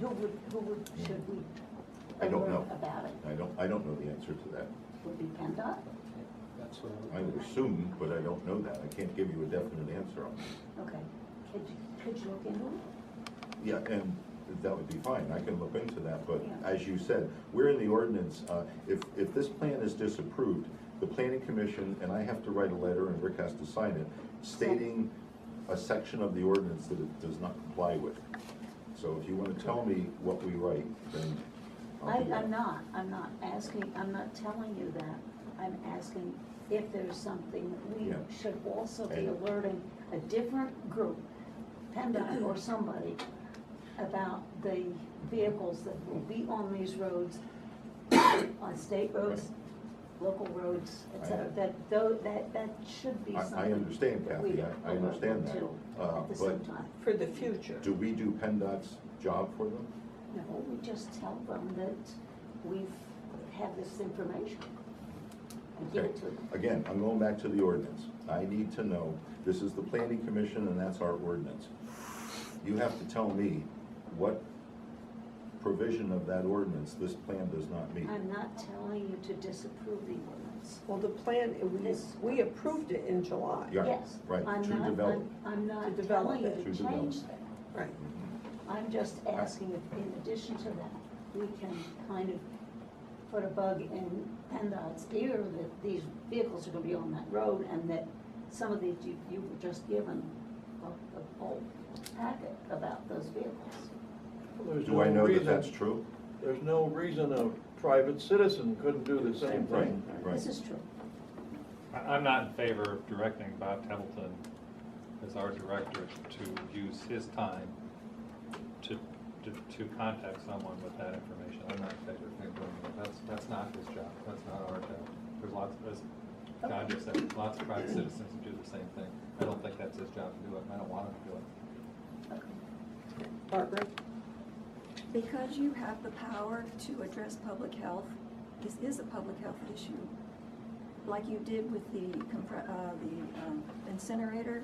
who would, who would, should we? I don't alert know. About it, I don't, I don't know the answer to that. would be PennDOT, That's I would assume, but I don't know that. I can't give you a definite answer on it. okay, could, you- could you look into it? Yeah, and that would be fine. I can look into that, but Yeah. as you said, we're in the ordinance. uh, If, if this plan is disapproved, the planning commission, and I have to write a letter and Rick has to sign it, stating a section of the ordinance that it does not comply with. So if you want to tell me what we write, then I, I'll do I'm that. not, I'm not asking, I'm not telling you that, I'm asking if there's something, we Yeah. should also be And- alerting a different group, PennDOT or somebody, about the vehicles that will be on these roads, on state roads, local roads, et I- cetera, that, though, that, that should be I- something. I understand, that we Kathy. I- I alert understand them that. to Uh, At the same But time, for the future. do we do PennDOT's job for them? no, we just tell them that we've had this information and give Okay, it to them. again, I'm going back to the ordinance. I need to know, this is the planning commission and that's our ordinance. You have to tell me what provision of that ordinance this plan does not meet. I'm not telling you to disapprove the ordinance. Well, the plan, we, This- we approved it in July. Yeah, Yes, right, I'm to not- develop. I'm- I'm To not develop telling you it. to To develop. change that. Right. Mm-hmm. I'm just asking if in addition to that, we can kind of put a bug in PennDOT's ear that these vehicles are gonna be on that road and that some of these, you, you were just given a, a whole packet about those vehicles. Do I know that that's true? There's no reason a private citizen couldn't do the same Right, thing. right. This is true. I- I'm not in favor of directing Bob Templeton as our director to use his time to, to, to contact someone with that information. I'm not in favor of him doing that. That's, that's not his job. That's not our job. There's lots, of- as John just said, lots of private citizens who do the same thing. I don't think that's his job to do it, and I don't want him to do it. Barbara? Because you have the power to address public health, this is a public health issue, like you did with the, compre- uh, the um, incinerator,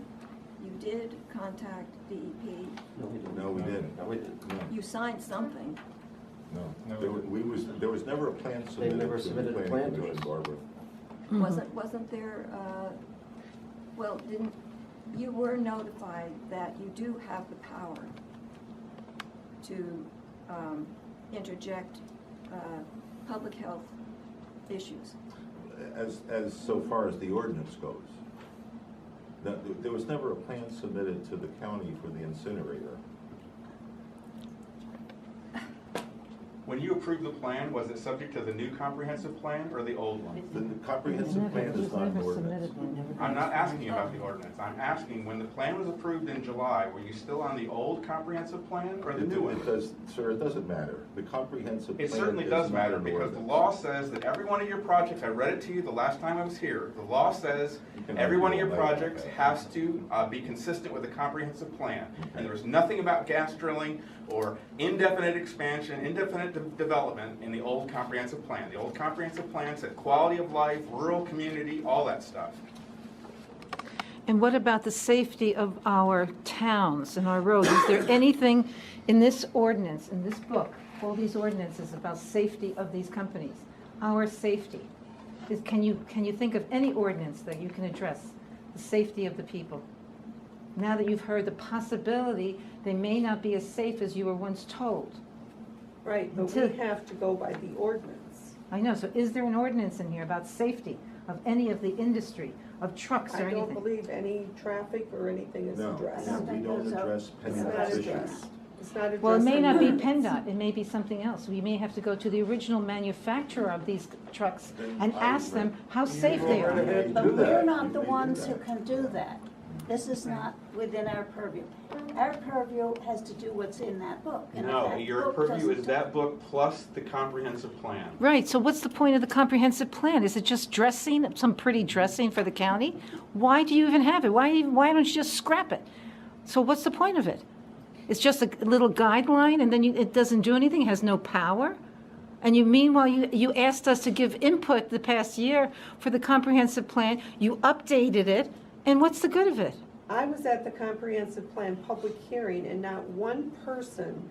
you did contact DEP, No, we didn't. No, we didn't. No, we didn't. you signed something. No, no. No. There wa- We was, there was never a plan submitted. never to the submitted a planning plan to commission, us. Barbara. Wasn't, wasn't there, uh, well, didn't, you were notified that you do have the power to um, interject uh, public health issues. As, as so far as the ordinance goes. That- there was never a plan submitted to the county for the incinerator. When you approved the plan, was it subject to the new comprehensive plan or the old one? The comprehensive plan is not an ordinance. I'm not asking you about the ordinance, I'm asking, when the plan was approved in July, were you still on the old comprehensive plan or the It new do- it one? does, sir, it doesn't matter. The comprehensive plan It is certainly does not matter, an because the ordinance. law says that every one of your projects, I read it to you the last time I was here, the law says You can every one of your argue all night about projects that. has to uh, be consistent with a comprehensive plan. And there was nothing about gas drilling or indefinite expansion, indefinite de- development in the old comprehensive plan. The old comprehensive plan said quality of life, rural community, all that stuff. And what about the safety of our towns and our roads? Is there anything in this ordinance, in this book, all these ordinances about safety of these companies, our safety? Is- Can you, can you think of any ordinance that you can address the safety of the people? Now that you've heard the possibility, they may not be as safe as you were once told. Right, but we Until- have to go by the ordinance. I know, so is there an ordinance in here about safety of any of the industry, of trucks or I anything? don't believe any traffic or anything is No, addressed. I don't we think don't those are- address It's pending not issues. addressed. It's not addressed. Well, it may in not be ordinance. PennDOT, it may be something else. We may have to go to the original manufacturer of these trucks and ask them how safe they are. You But do we're that. not the You do ones that. who can do that. This is not within our purview. Our purview has to do what's in that book. and if No, that your book purview doesn't is do- that book plus the comprehensive plan. Right, so what's the point of the comprehensive plan? Is it just dressing, some pretty dressing for the county? Why do you even have it? Why, even- why don't you just scrap it? So what's the point of it? It's just a little guideline and then you, it doesn't do anything, has no power? And you meanwhile, you, you asked us to give input the past year for the comprehensive plan, you updated it, and what's the good of it? I was at the comprehensive plan public hearing and not one person